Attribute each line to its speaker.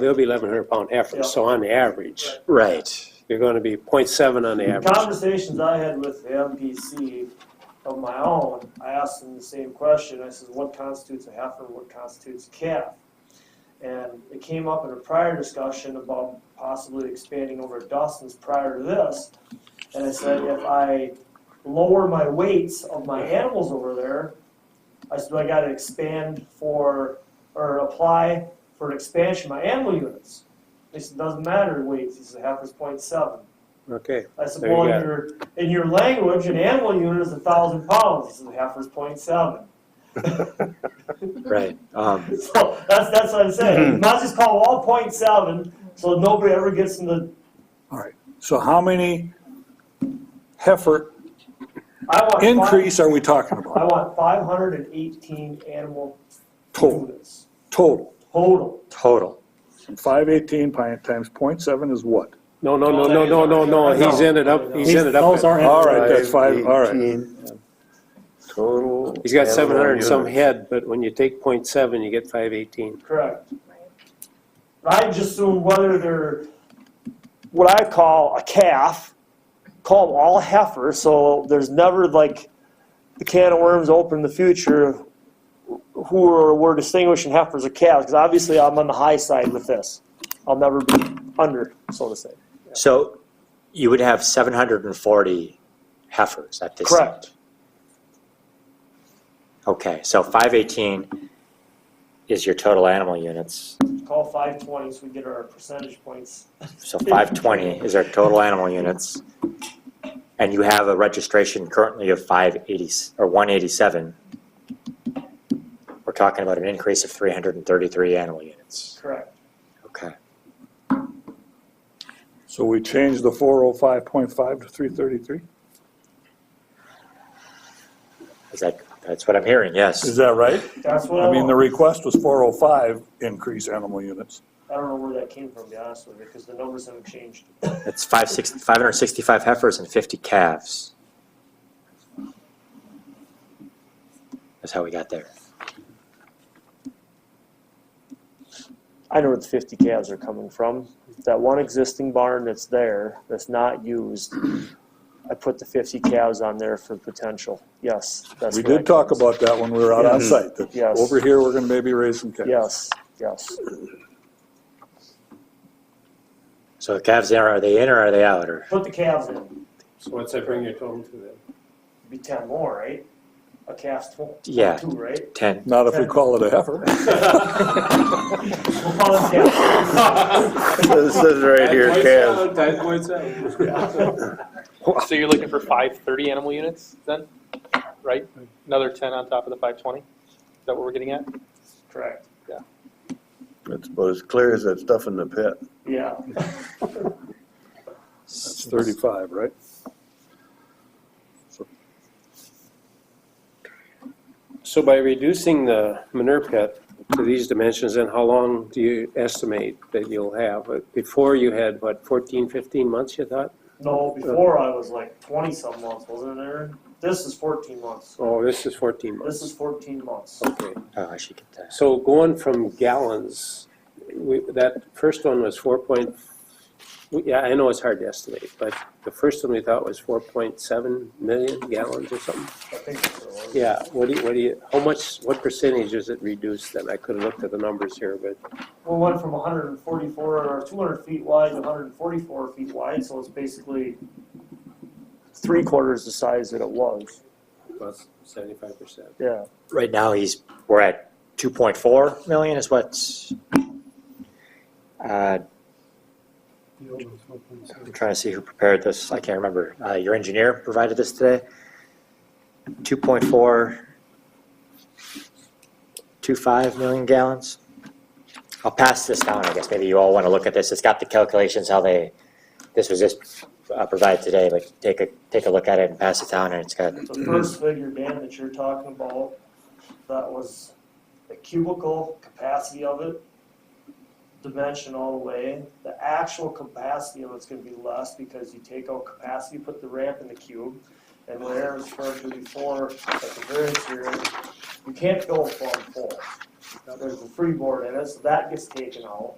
Speaker 1: They'll be eleven hundred pound
Speaker 2: Yeah.
Speaker 1: heifers, so on average,
Speaker 3: Right.
Speaker 1: you're gonna be 0.7 on the average.
Speaker 2: Conversations I had with the MPC of my own, I asked them the same question, I says, what constitutes a heifer, what constitutes a calf? And it came up in a prior discussion about possibly expanding over at Dustin's prior to this. And I said, if I lower my weights of my animals over there, I said, do I gotta expand for, or apply for an expansion of my animal units? He said, doesn't matter weights, he said, heifer's point seven.
Speaker 1: Okay,
Speaker 2: I
Speaker 1: There you
Speaker 2: suppose
Speaker 1: go.
Speaker 2: your, in your language, an animal unit is a thousand pounds, this is half is point seven.
Speaker 3: Right. Um,
Speaker 2: So that's, that's what
Speaker 1: Hmm.
Speaker 2: I'm saying, might as well just call all point seven, so nobody ever gets in the,
Speaker 4: So how many heifer
Speaker 2: I want. five-
Speaker 4: increase are we talking
Speaker 2: I
Speaker 4: about?
Speaker 2: want five hundred and eighteen animal
Speaker 4: Total,
Speaker 2: units,
Speaker 4: total.
Speaker 2: total.
Speaker 3: total.
Speaker 4: Five eighteen pi- times point seven is what?
Speaker 1: no, no, no, no, no, no, no, he's ended up, he's ended up,
Speaker 4: Those
Speaker 1: at-
Speaker 4: aren't, all right, that's five, all right.
Speaker 5: 18, Total.
Speaker 1: he's got seven hundred and some
Speaker 5: animal
Speaker 1: head, but when you take 0.7, you get five eighteen.
Speaker 2: Correct. I just assume whether they're, what I call a calf, call them all heifers, so there's never like the can of worms open in the future, who are, we're distinguishing heifers or calves, because obviously I'm on the high side with this. I'll never be under, so to say.
Speaker 3: So you would have 740 heifers at this.
Speaker 2: Correct.
Speaker 3: site. Okay, so 518 is your total animal units.
Speaker 2: Call five twenty, so we get our percentage points.
Speaker 3: So 520 is our total animal units. And you have a registration currently of 580 or 187. We're talking about an increase of 333 animal units.
Speaker 2: Correct.
Speaker 3: Okay.
Speaker 4: So we changed the four oh five point five to three thirty-three?
Speaker 3: Is that, that's what I'm hearing,
Speaker 4: Is
Speaker 3: yes.
Speaker 4: that right?
Speaker 2: That's what I
Speaker 4: I mean, the
Speaker 2: want.
Speaker 4: request was four oh five increase animal units.
Speaker 2: I don't know where that came from, to be honest with you, because the numbers haven't changed.
Speaker 3: That's five six- 565 heifers and 50 calves. That's how we got there.
Speaker 2: I know where the fifty calves are coming from. That one existing barn that's there, that's not used, I put the fifty calves on there for potential. Yes, that's.
Speaker 4: We
Speaker 2: where
Speaker 4: did
Speaker 2: that
Speaker 4: talk
Speaker 2: comes.
Speaker 4: about that when we were out on
Speaker 2: Yes.
Speaker 4: site, that
Speaker 2: Yes.
Speaker 4: over here, we're gonna maybe raise some cattle.
Speaker 2: Yes, yes.
Speaker 3: So the calves, in, are they in or are they out? Or
Speaker 2: Put the calves in,
Speaker 1: So what's that bring your total to then?
Speaker 2: be ten more, right? A calf's tw-
Speaker 3: Yeah.
Speaker 2: two, right?
Speaker 3: 10?
Speaker 4: Not if we call it a heifer.
Speaker 2: We'll call them calves.
Speaker 5: units. It says right here, calves.
Speaker 6: So you're looking for five thirty animal units then, right? Another ten on top of the five twenty? Is that what we're getting at?
Speaker 2: Correct,
Speaker 5: That's about as clear as that stuff in the pit.
Speaker 2: yeah.
Speaker 4: That's thirty-five, right?
Speaker 1: So by reducing the manure pit to these dimensions, then how long do you estimate that you'll have? Uh, Before you had, what, 14, 15 months, you thought?
Speaker 2: No, before I was like twenty-some months, wasn't there? This is fourteen months.
Speaker 1: Oh, this is fourteen months,
Speaker 2: This is fourteen months.
Speaker 1: okay.
Speaker 3: Oh, I should get that.
Speaker 1: So going from gallons, we, that first one was four point, we- yeah, I know it's hard to estimate, but the first one we thought was four point seven million gallons or something.
Speaker 2: I think that's what it was.
Speaker 1: Yeah, what do you, what do you, how much, what percentage is it reduced then? I could have looked at the numbers here, but
Speaker 2: We went from 144 or 200 feet wide to 144 feet wide, so it's basically three quarters the size that it was.
Speaker 1: about seventy-five percent.
Speaker 2: Yeah.
Speaker 3: Right now, he's, we're at 2.4 million is what's, uh, I'm trying to see who prepared this. I can't remember. Uh, Your engineer provided this today? 2.4, 25 million gallons? I'll pass this down, I guess. Maybe you all want to look at this. It's got the calculations, how they, this was just uh, provided today, but take a, take a look at it and pass it down, and it's got,
Speaker 2: The first figure, Dan, that you're talking about, that was the cubicle capacity of it, dimension all the way. The actual capacity of it's gonna be less because you take out capacity, put the ramp in the cube. And what Aaron was referring to before, at the variance here, you can't go from full. Now, There's a freeboard in it, so that gets taken out.